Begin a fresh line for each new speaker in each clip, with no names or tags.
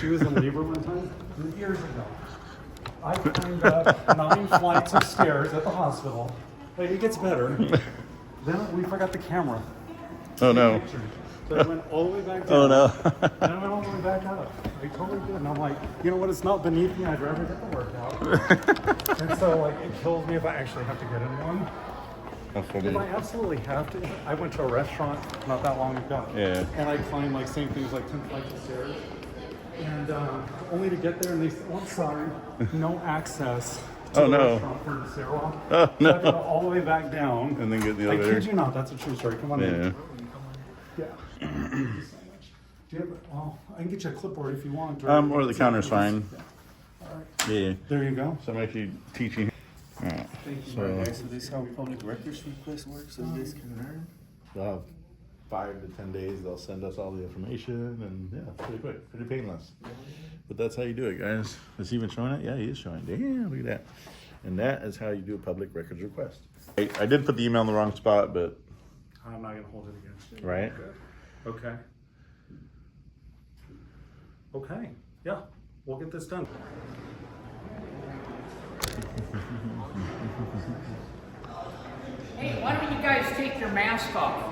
She was in labor one time, years ago. I climbed up nine flights of stairs at the hospital. Like, it gets better. Then we forgot the camera.
Oh no.
Pictures. So I went all the way back down.
Oh no.
And I went all the way back up. I totally did. And I'm like, you know what? It's not beneath me. I'd rather get the workout. and so, like, it kills me if I actually have to get in one.
That's what it
If I
is.
absolutely have to, I went to a restaurant not that long ago.
Yeah.
And I climbed like same things like 10 flights of stairs. And um, only to get there and they said, oh, I'm sorry, no access to
Oh,
the
no.
restaurant for the stairwell.
Oh,
So I had to
no.
go all the way back down.
And then get in the
I
elevator.
kid you not, that's a true story. Come on
Yeah.
in. Yeah. Do you have, well, I can get you a clipboard if you want. Or,
Um, or the counter's fine. Yeah.
There you go.
So I'm actually teaching. Alright.
Thank you, Mark. So this how public records request works, so this can learn?
They'll have five to ten days. They'll send us all the information, and yeah, it's pretty quick, pretty painless. But that's how you do it, guys. Is he even showing it? Yeah, he is showing. it. Damn, look at that. And that is how you do a public records request. I, I did put the email in the wrong spot, but
I'm not going to hold it against you.
right.
Okay. Okay, yeah, we'll get this done.
Hey, why don't you guys take your mask off?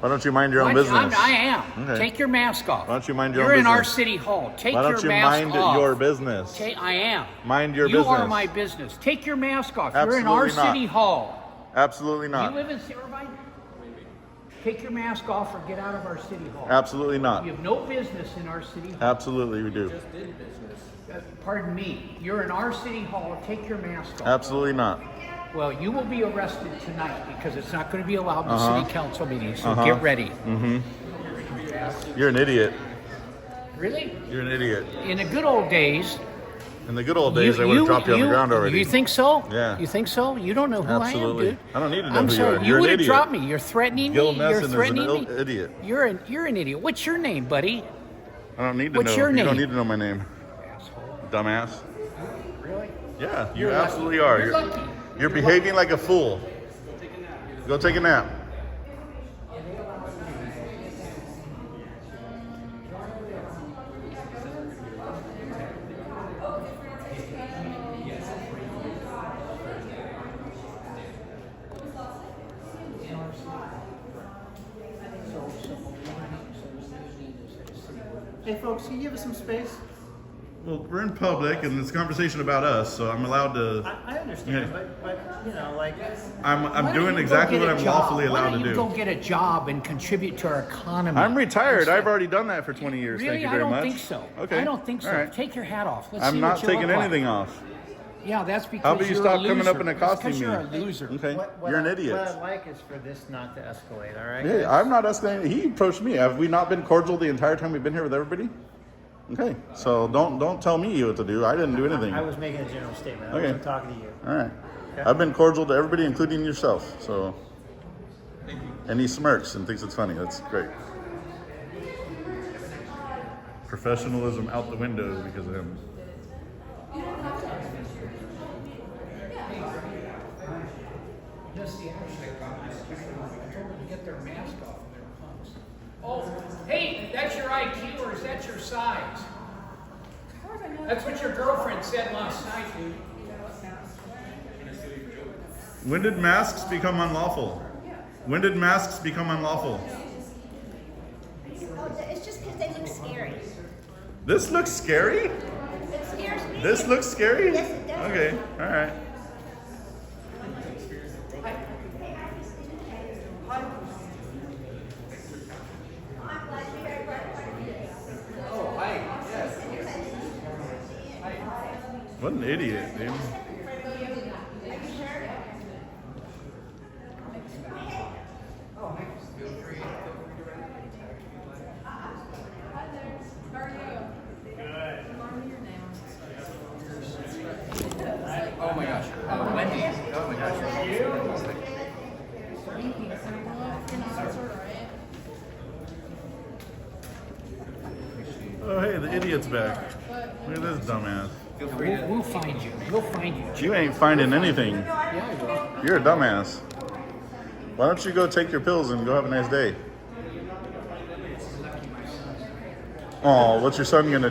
Why don't you mind your own
Why don't you- I'm-
business?
I am.
Okay.
Take your mask off.
Why don't you mind your own
You're in our
business?
city hall. Take
Why
your
don't you
mask
mind
off.
your business?
Ta- I am.
Mind your
you
business.
are my business. Take your mask off. You're in our
Absolutely not.
city hall.
Absolutely
Do
not.
You live in Irvine? Take your mask off or get out of our city hall.
Absolutely not.
You have no business in our city hall. Uh,
Absolutely, we do.
Pardon me. You're in our city hall. Take your mask off.
Absolutely not.
Well, you will be arrested tonight because it's not going to be allowed in
Uh-huh.
city council meetings. So get ready.
Mm. You're an idiot.
Really?
You're an idiot.
In the good old days,
In the good old days, I would have dropped you on the ground already.
You think so?
Yeah.
You think so? You don't know who
Absolutely.
I am, dude.
I don't need to know
I'm
who you
sorry.
are. You're an
would have
idiot.
dropped me. You're threatening
Gil
me.
Nesson
You're
is an
threatening
il-
me.
idiot.
You're an you're an idiot. What's your name, buddy?
I don't need to
What's
know.
your
You don't
name?
need to know my name,
Asshole.
dumbass.
Really?
Yeah, you
You're lucky.
absolutely are.
You're
You're,
lucky.
you're behaving like a fool. Go take a nap.
Hey, folks, can you give us some space?
Well, we're in public, and it's a conversation about us, so I'm allowed to.
I, I understand,
Yeah.
but, but, you know, like,
I'm
Why
I'm
don't
doing
you go
exactly
get
what
a
I'm
job?
lawfully
Why
allowed
don't
to
you Go
do.
get a job and contribute to our economy.
I'm retired. I've already done that for 20 years.
Really,
Thank you
I
very
don't
much.
think so.
Okay.
I don't think so.
All right.
Take your hat off. Let's see
I'm not
what you look
taking
like.
anything off.
Yeah, that's because
How about you
you're
stop
a
coming up
loser.
and
That's
accosting
'cause
me?
You're a loser.
Okay.
what, what
You're an
I-
idiot.
What I'd like is for this not to escalate, all right?
Hey, I'm not asking. He approached me. Have we not been cordial the entire time we've been here with everybody? Okay, so don't don't tell me what to do. I didn't do anything.
I
All
was making a general statement. I
Okay.
wasn't talking to you.
right, I've been cordial to everybody, including yourself. So, and he smirks and thinks it's funny. That's great. Professionalism out the window because of him.
That's the actual problem. I told them to get their mask off and their punks. Oh, hey, that's your IQ or is that your size? That's what your girlfriend said last night, dude.
When did masks become unlawful? When did masks become unlawful?
Oh, th- it's just because they look scary.
This looks scary.
It scares me.
This looks scary.
Yes, it does.
Okay, all right. What an idiot, dude. Oh, hey, the idiot's back. Look at this dumbass.
We'll, we'll find you. We'll find you.
You ain't finding anything.
Yeah, you are.
You're a dumbass. Why don't you go take your pills and go have a nice day? Oh, what's your son gonna do?